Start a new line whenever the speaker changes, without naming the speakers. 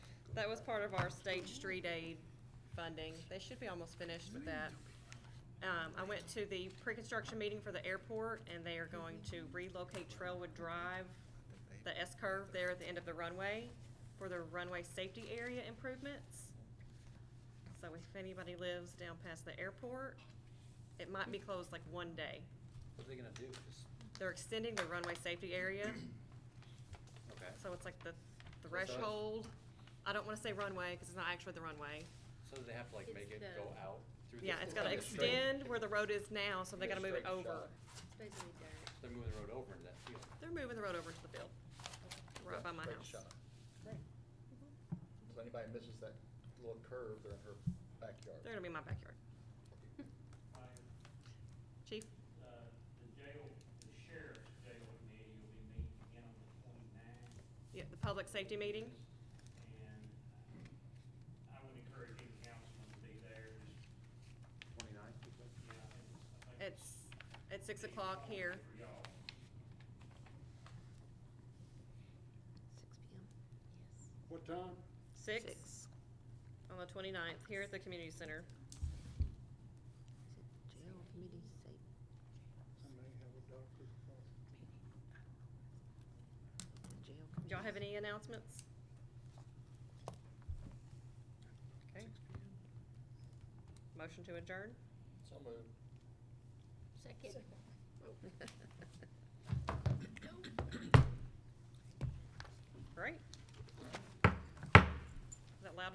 That was part of our state street aid funding. They should be almost finished with that. Um, I went to the pre-construction meeting for the airport, and they are going to relocate Trailwood Drive, the S-curve there at the end of the runway, for the runway safety area improvements. So if anybody lives down past the airport, it might be closed like one day.
What are they gonna do? Just,
They're extending the runway safety area,
okay.
so it's like the
So-
threshold. I don't wanna say runway, cause it's not actually the runway.
So do they have to like make it
It's
go
the-
out through the?
Yeah, it's gotta
like a straight-
extend where the road is now, so they
like a
gotta move it
straight
over.
shot.
It's basically dirt.
They're moving the road over into that field.
They're moving the road over to the field, right by my
Great
house.
shot. So anybody misses that little curve, they're in her backyard.
They're gonna be in my backyard.
Ryan,
Chief,
uh, the jail, the sheriff's jail committee will be meeting again on the twenty-ninth.
yeah, the public safety meeting,
And uh, I would encourage any councilman to be there, just,
Twenty-nine?
you know, I think
it's at six o'clock here.
For y'all.
Six PM, yes.
What time?
Six on the twenty-ninth, here at the community center.
Is it jail committee safe?
I may have a doctor's appointment.
Jail
Do
committee.
Y'all have any announcements? Okay. Motion to adjourn?
So moved.
Second.
Great.